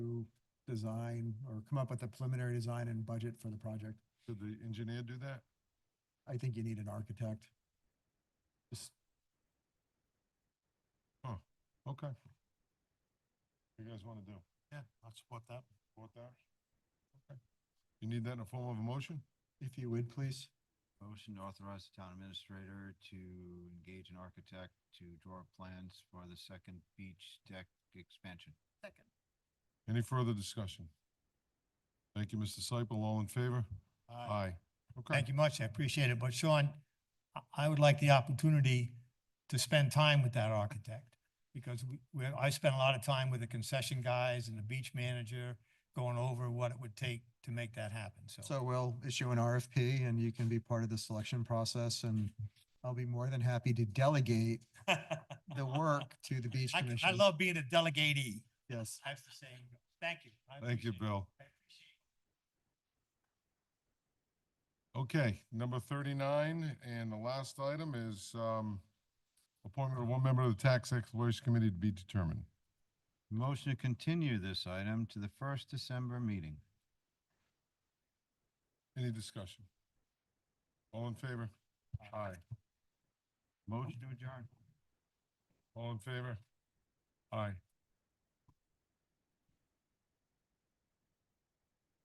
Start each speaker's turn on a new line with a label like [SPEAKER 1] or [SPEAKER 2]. [SPEAKER 1] design or come up with a preliminary design and budget for the project.
[SPEAKER 2] Did the engineer do that?
[SPEAKER 1] I think you need an architect. Just,
[SPEAKER 2] Okay. You guys want to do?
[SPEAKER 3] Yeah, I'll support that.
[SPEAKER 2] Support that? Okay. You need that in the form of a motion?
[SPEAKER 1] if you would, please.
[SPEAKER 4] Motion to authorize the town administrator to engage an architect to draw up plans for the second beach deck expansion.
[SPEAKER 5] Second.
[SPEAKER 2] Any further discussion? Thank you, Mr. Seipel. All in favor? Aye. Okay.
[SPEAKER 3] Uh, Thank you much, I appreciate it, but Sean, I- I would like the opportunity to spend time with that architect. Because we, we, I spent a lot of time with the concession guys and the beach manager going over what it would take to make that happen, so.
[SPEAKER 1] So we'll issue an RFP and you can be part of the selection process and I'll be more than happy to delegate the work to the beach
[SPEAKER 3] I,
[SPEAKER 1] commission.
[SPEAKER 3] I love being a delegatee,
[SPEAKER 1] Yes.
[SPEAKER 3] I have to say, thank you. I
[SPEAKER 2] Thank you,
[SPEAKER 3] appreciate it.
[SPEAKER 2] Bill.
[SPEAKER 3] I appreciate it.
[SPEAKER 2] Okay, number thirty-nine, and the last item is, um, appointment of one member of the Tax Exploration Committee to be determined.
[SPEAKER 4] Motion to continue this item to the first December meeting.
[SPEAKER 2] Any discussion? All in favor? Aye.
[SPEAKER 4] Motion to adjourn.
[SPEAKER 2] All in favor? Aye.